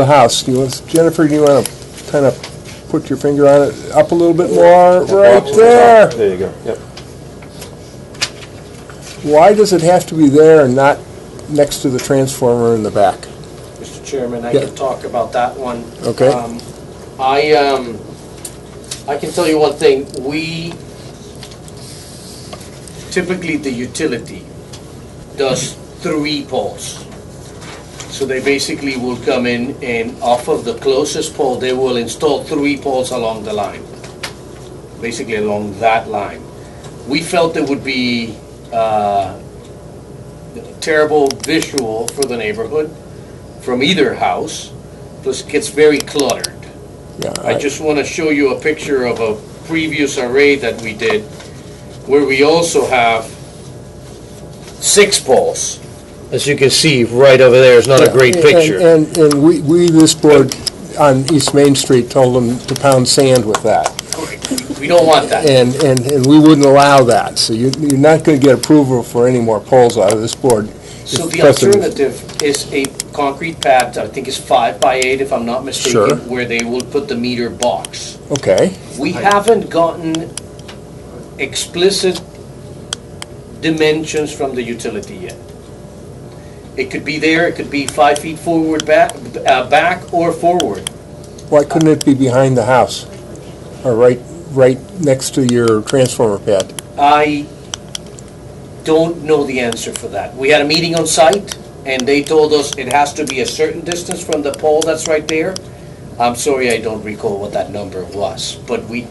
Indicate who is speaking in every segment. Speaker 1: The house, do you want, Jennifer, do you want to kind of put your finger on it, up a little bit more, right there?
Speaker 2: There you go, yep.
Speaker 1: Why does it have to be there and not next to the transformer in the back?
Speaker 3: Mr. Chairman, I
Speaker 1: Yeah.
Speaker 3: can talk about that one.
Speaker 1: Okay.
Speaker 3: Um, I, um, I can tell you one thing, we, typically the utility does three poles. So they basically will come in and off of the closest pole, they will install three poles along the line, basically along that line. We felt it would be uh, terrible visual for the neighborhood from either house, plus it gets very cluttered.
Speaker 1: Yeah,
Speaker 3: I just want to show you a picture of a previous array that we did, where we also have six poles. As you can see, right over there is not a great
Speaker 1: And-
Speaker 3: picture.
Speaker 1: And, and we, we, this board on East Main Street told them to pound sand with that.
Speaker 3: We don't want that.
Speaker 1: And, and, and we wouldn't allow that, so you, you're not going to get approval for any more polls out of this board.
Speaker 3: So
Speaker 1: If
Speaker 3: the
Speaker 1: precedent-
Speaker 3: alternative is a concrete pad, I think it's five by eight, if I'm not
Speaker 1: Sure.
Speaker 3: mistaken, where they will put the meter box.
Speaker 1: Okay,
Speaker 3: We haven't gotten explicit dimensions from the utility yet. It could be there, it could be five feet forward, back, uh, back or forward.
Speaker 1: why couldn't it be behind the house? Or right, right next to your transformer pad?
Speaker 3: I don't know the answer for that. We had a meeting on site, and they told us it has to be a certain distance from the pole that's right there. I'm sorry, I don't recall what that number was, but we,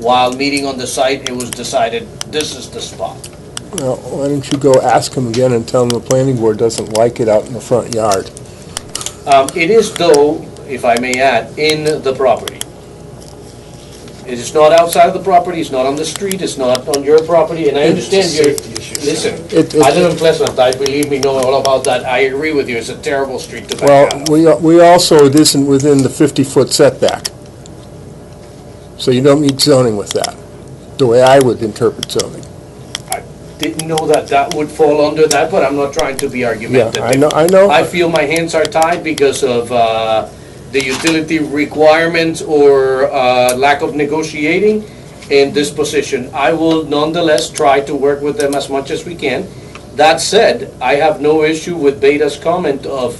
Speaker 3: while meeting on the site, it was decided this is the spot.
Speaker 1: Well, why don't you go ask him again and tell him the planning board doesn't like it out in the front yard?
Speaker 3: Um, It is though, if I may add, in the property. It is not outside of the property, it's not on the street, it's not on your property, and I understand your, listen,
Speaker 1: It- it-
Speaker 3: I live in Pleasant, I believe me, know all about that, I agree with you, it's a terrible street to back
Speaker 1: Well,
Speaker 3: out.
Speaker 1: we, we also, it isn't within the 50-foot setback. So you don't need zoning with that, the way I would interpret zoning.
Speaker 3: Didn't know that that would fall under that, but I'm not trying to be
Speaker 1: Yeah,
Speaker 3: argumentative.
Speaker 1: I know, I know.
Speaker 3: I feel my hands are tied because of uh, the utility requirements or uh, lack of negotiating in this position. I will nonetheless try to work with them as much as we can. That said, I have no issue with Beta's comment of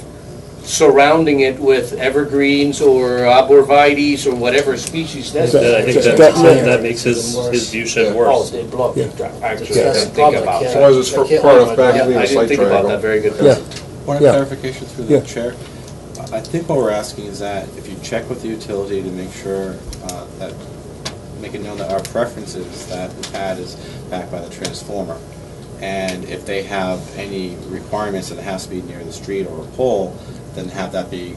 Speaker 3: surrounding it with evergreens or arborvitae's or whatever species that's.
Speaker 1: That-
Speaker 4: That I think that,
Speaker 1: that may-
Speaker 4: that makes his, his view shed
Speaker 3: Oh,
Speaker 4: worse.
Speaker 3: they block the track, actually, I
Speaker 1: Yeah.
Speaker 3: didn't think about
Speaker 2: As
Speaker 3: that.
Speaker 2: long as it's for part of back of
Speaker 3: Yeah, I
Speaker 2: the
Speaker 3: didn't
Speaker 2: site
Speaker 3: think about that,
Speaker 2: triangle.
Speaker 3: very good.
Speaker 1: Yeah.
Speaker 5: Point
Speaker 1: Yeah.
Speaker 5: of clarification through
Speaker 1: Yeah.
Speaker 5: the chair. I think what we're asking is that if you check with the utility to make sure uh, that, make it known that our preference is that the pad is backed by the transformer. And if they have any requirements that it has to be near the street or a pole, then have that be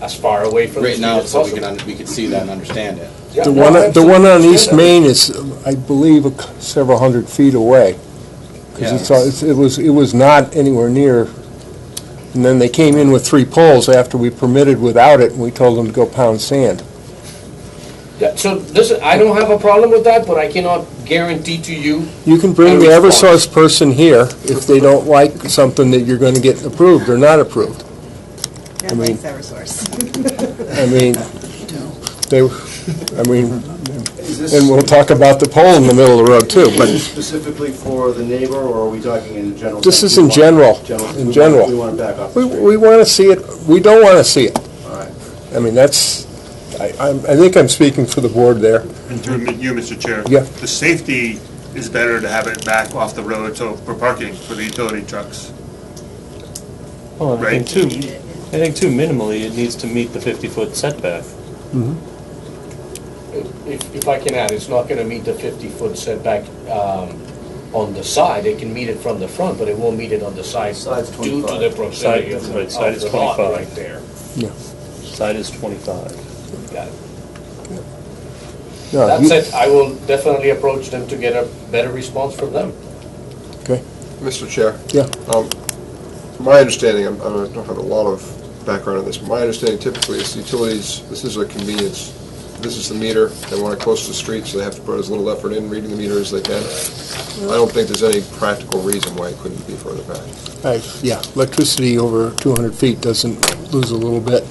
Speaker 3: As far away from the
Speaker 5: written
Speaker 3: street
Speaker 5: out
Speaker 3: as
Speaker 5: so we
Speaker 3: possible.
Speaker 5: can, un- we can see that and understand it.
Speaker 3: Yeah,
Speaker 1: The
Speaker 3: no,
Speaker 1: one,
Speaker 3: I
Speaker 1: the one on
Speaker 3: absolutely
Speaker 1: East
Speaker 3: understand that.
Speaker 1: Main is, I believe, a c- several hundred feet away.
Speaker 5: Yeah.
Speaker 1: Because it was, it was not anywhere near, and then they came in with three poles after we permitted without it, and we told them to go pound sand.
Speaker 3: Yeah, so listen, I don't have a problem with that, but I cannot guarantee to you,
Speaker 1: You can bring the
Speaker 3: And response.
Speaker 1: Eversource person here if they don't like something that you're going to get approved or not approved.
Speaker 6: Yeah, thanks, Eversource.
Speaker 1: I mean, they, I mean, and we'll talk about the pole in the middle of the road too, but
Speaker 7: Specifically for the neighbor, or are we talking in general?
Speaker 1: This
Speaker 7: sense?
Speaker 1: is in
Speaker 7: We want-
Speaker 1: general, in
Speaker 7: we want-
Speaker 1: general.
Speaker 7: We want to back off
Speaker 1: we,
Speaker 7: the
Speaker 1: we
Speaker 7: street.
Speaker 1: want to see it, we don't want to see it.
Speaker 7: All right.
Speaker 1: I mean, that's, I, I'm- I think I'm speaking for the board there.
Speaker 8: And through you, Mr. Chair.
Speaker 1: Yeah.
Speaker 8: The safety is better to have it back off the road, so for parking for the utility trucks.
Speaker 4: Well, and Oh, I think
Speaker 8: Right.
Speaker 4: too, I think too minimally, it needs to meet the fifty-foot setback.
Speaker 3: if, if I can add, it's not gonna meet the fifty-foot setback, um, on the side, it can meet it from the front, but it won't meet it on the side.
Speaker 7: Side's
Speaker 3: Due to the
Speaker 7: 25.
Speaker 3: proximity
Speaker 4: Side-
Speaker 3: of the,
Speaker 4: right, side
Speaker 3: of
Speaker 4: is
Speaker 3: the lot
Speaker 4: 25.
Speaker 3: right there.
Speaker 4: Side is twenty-five.
Speaker 3: Got it.
Speaker 1: No,
Speaker 3: That
Speaker 1: Uh, you-
Speaker 3: said, I will definitely approach them to get a better response from them.
Speaker 1: Okay,
Speaker 2: Mr. Chair.
Speaker 1: yeah,
Speaker 2: Um, My understanding, I'm- I don't have a lot of background on this, but my understanding typically is utilities, this is a convenience this is the meter, they want it close to the street, so they have to put as little effort in reading the meter as they can. I don't think there's any practical reason why it couldn't be further back.
Speaker 1: I- Yeah, electricity over 200 feet doesn't lose a little bit.